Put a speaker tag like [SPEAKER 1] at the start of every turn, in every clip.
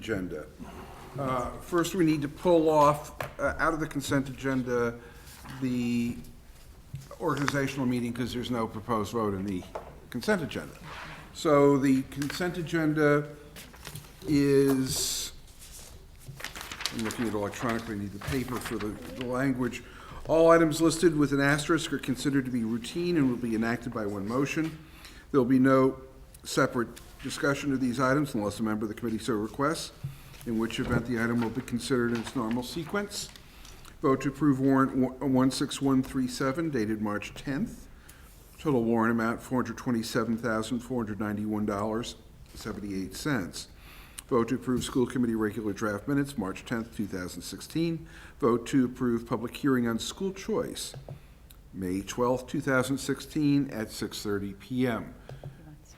[SPEAKER 1] agenda. Uh, First, we need to pull off, uh, out of the consent agenda, the organizational meeting, because there's no proposed vote in the consent agenda. So the consent agenda is, I'm looking at electronically, need the paper for the, the language. All items listed with an asterisk are considered to be routine and will be enacted by one motion. There'll be no separate discussion of these items unless a member of the committee so requests, in which event the item will be considered in its normal sequence. Vote to approve warrant one six one three seven dated March tenth. Total warrant amount, four hundred twenty-seven thousand, four hundred ninety-one dollars, seventy-eight cents. Vote to approve school committee regular draft minutes, March tenth, two thousand sixteen. Vote to approve public hearing on school choice, May twelfth, two thousand sixteen, at six thirty PM.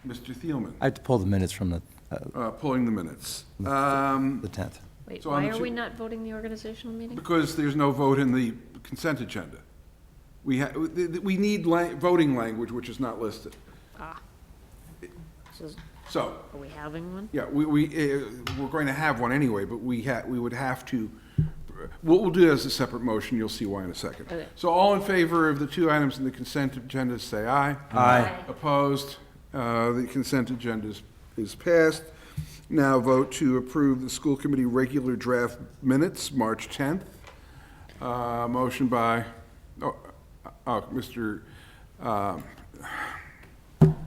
[SPEAKER 1] Mr. Thielman,
[SPEAKER 2] I have to pull the minutes from the, uh,
[SPEAKER 1] uh, pulling the minutes. Um,
[SPEAKER 2] the 10th.
[SPEAKER 3] Wait,
[SPEAKER 1] So on
[SPEAKER 3] why
[SPEAKER 1] the
[SPEAKER 3] are
[SPEAKER 1] two-
[SPEAKER 3] we not voting the organizational meeting?
[SPEAKER 1] Because there's no vote in the consent agenda. We ha, we we need la- voting language, which is not listed.
[SPEAKER 3] So is-
[SPEAKER 1] So,
[SPEAKER 3] Are we having one?
[SPEAKER 1] yeah, we, we, eh, we're going to have one anyway, but we ha, we would have to, what we'll do as a separate motion, you'll see why in a second.
[SPEAKER 3] Okay.
[SPEAKER 1] So all in favor of the two items in the consent agenda, say aye.
[SPEAKER 2] Aye.
[SPEAKER 1] Opposed? Uh, The consent agenda is, is passed. Now vote to approve the school committee regular draft minutes, March 10th. Uh, Motion by, oh, oh, Mr., um,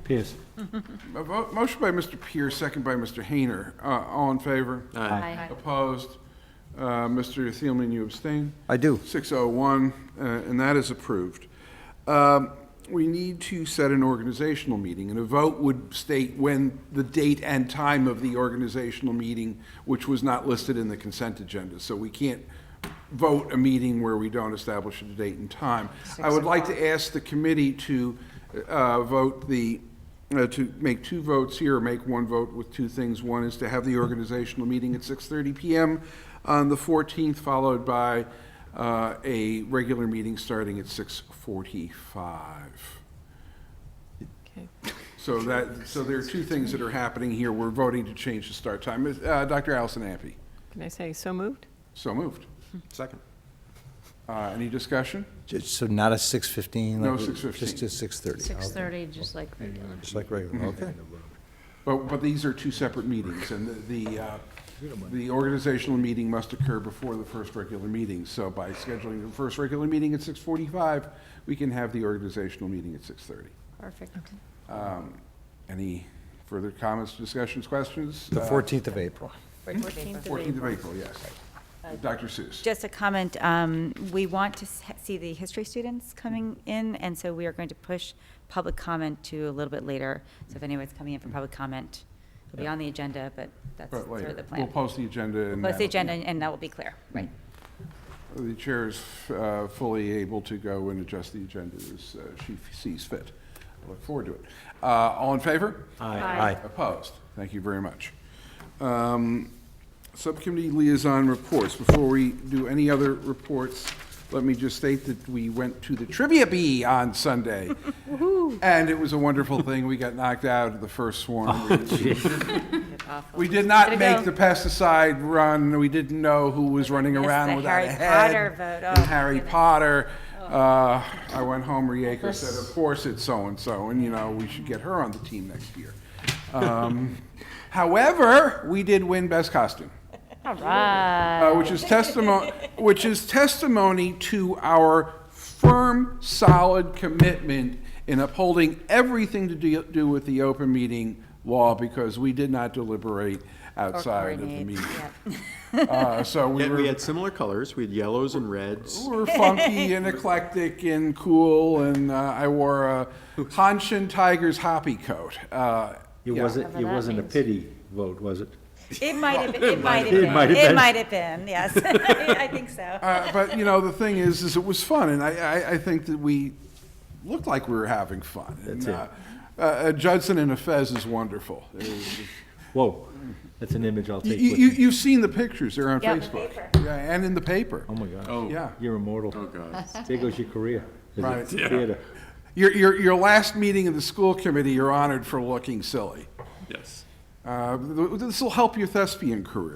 [SPEAKER 2] Pierce.
[SPEAKER 1] a vo- motion by Mr. Pierce, second by Mr. Hayner. Uh, All in favor?
[SPEAKER 3] Aye.
[SPEAKER 1] Opposed? Uh, Mr. Thielman, you abstain?
[SPEAKER 2] I do.
[SPEAKER 1] 601, uh, and that is approved. Um, We need to set an organizational meeting, and a vote would state when the date and time of the organizational meeting, which was not listed in the consent agenda. So we can't vote a meeting where we don't establish a date and time. I would like to ask the committee to uh, vote the, uh, to make two votes here, or make one vote with two things. One is to have the organizational meeting at 6:30 PM on the 14th, followed by uh, a regular meeting starting at 6:45. So that, so there are two things that are happening here. We're voting to change the start time. Uh, Dr. Allison Ampe,
[SPEAKER 4] Can I say, so moved? Hmm.
[SPEAKER 1] so moved.
[SPEAKER 5] Second.
[SPEAKER 1] Uh, Any discussion?
[SPEAKER 2] So not a 6:15?
[SPEAKER 1] No,
[SPEAKER 2] like,
[SPEAKER 1] 6:15.
[SPEAKER 2] Just a 6:30.
[SPEAKER 3] Six
[SPEAKER 2] Okay.
[SPEAKER 3] thirty, just like regular.
[SPEAKER 2] Just like regular, okay.
[SPEAKER 1] But, but these are two separate meetings, and the, the, uh, the organizational meeting must occur before the first regular meeting. So by scheduling the first regular meeting at 6:45, we can have the organizational meeting at 6:30.
[SPEAKER 3] Perfect.
[SPEAKER 1] Um, Any further comments, discussions, questions?
[SPEAKER 2] The
[SPEAKER 1] Uh,
[SPEAKER 2] 14th of April.
[SPEAKER 3] 14th
[SPEAKER 1] 14th
[SPEAKER 3] of April.
[SPEAKER 1] of April, yes. Dr. Seuss.
[SPEAKER 6] Uh, Just a comment, um, we want to s- see the history students coming in, and so we are going to push public comment to a little bit later. So if anyone's coming in for public comment, it'll be on the agenda, but that's
[SPEAKER 1] But
[SPEAKER 6] sort
[SPEAKER 1] later.
[SPEAKER 6] of the
[SPEAKER 1] We'll
[SPEAKER 6] plan.
[SPEAKER 1] post the agenda and.
[SPEAKER 6] Post the
[SPEAKER 1] that'll-
[SPEAKER 6] agenda, and that will be clear. Right.
[SPEAKER 1] The chair is uh, fully able to go and adjust the agenda as uh, she sees fit. I look forward to it. Uh, All in favor?
[SPEAKER 2] Aye.
[SPEAKER 1] Opposed? Thank you very much. Um, Subcommittee liaison reports. Before we do any other reports, let me just state that we went to the trivia bee on Sunday. And it was a wonderful thing. We got knocked out of the first swarm. We didn't- We did not
[SPEAKER 6] Way to
[SPEAKER 1] make
[SPEAKER 6] go.
[SPEAKER 1] the pesticide run. We didn't know who was running
[SPEAKER 6] Yes,
[SPEAKER 1] around
[SPEAKER 6] the
[SPEAKER 1] without a
[SPEAKER 6] Harry
[SPEAKER 1] head.
[SPEAKER 6] Potter vote. Oh,
[SPEAKER 1] And
[SPEAKER 6] my
[SPEAKER 1] Harry
[SPEAKER 6] goodness. Oh.
[SPEAKER 1] Potter. Uh, I went home, Rieko said, of course it's so-and-so, and you know, we should get her on the team next year. Um, However, we did win best costume
[SPEAKER 6] All right.
[SPEAKER 1] uh, which is testimony, which is testimony to our firm, solid commitment in upholding everything to do, do with the open meeting law, because we did not deliberate outside of the
[SPEAKER 6] coordinate,
[SPEAKER 1] meeting. Uh, So we
[SPEAKER 5] Yet
[SPEAKER 1] were,
[SPEAKER 5] we
[SPEAKER 1] we
[SPEAKER 5] had similar colors, we had yellows and reds.
[SPEAKER 1] were funky and eclectic and cool, and uh, I wore a Hanshin Tigers hoppy coat. Uh,
[SPEAKER 7] It
[SPEAKER 1] yeah.
[SPEAKER 7] wasn't, it
[SPEAKER 3] that
[SPEAKER 7] wasn't a
[SPEAKER 3] means.
[SPEAKER 7] pity vote, was it?
[SPEAKER 6] It might have, been- it might have
[SPEAKER 7] It
[SPEAKER 6] been,
[SPEAKER 7] might have
[SPEAKER 6] it
[SPEAKER 7] been.
[SPEAKER 6] might have been, yes. I think so.
[SPEAKER 1] Uh, but you know, the thing is, is it was fun, and I, I, I think that we looked like we were having fun. and,
[SPEAKER 7] That's it.
[SPEAKER 1] uh, Uh, Judson and a Fez is wonderful. It was-
[SPEAKER 7] Whoa, that's an image I'll
[SPEAKER 1] you,
[SPEAKER 7] take with
[SPEAKER 1] you,
[SPEAKER 7] me.
[SPEAKER 1] you've seen the pictures; they're on
[SPEAKER 3] Yeah. In the
[SPEAKER 1] Facebook. Yeah, and in the paper.
[SPEAKER 7] Oh, my God.
[SPEAKER 1] yeah.
[SPEAKER 7] You're immortal.
[SPEAKER 5] Oh, God.
[SPEAKER 7] There goes your career. as a
[SPEAKER 1] Right.
[SPEAKER 7] theater.
[SPEAKER 1] Your, your your last meeting of the school committee, you're honored for looking silly.
[SPEAKER 5] Yes.
[SPEAKER 1] Uh, this will help your thespian career.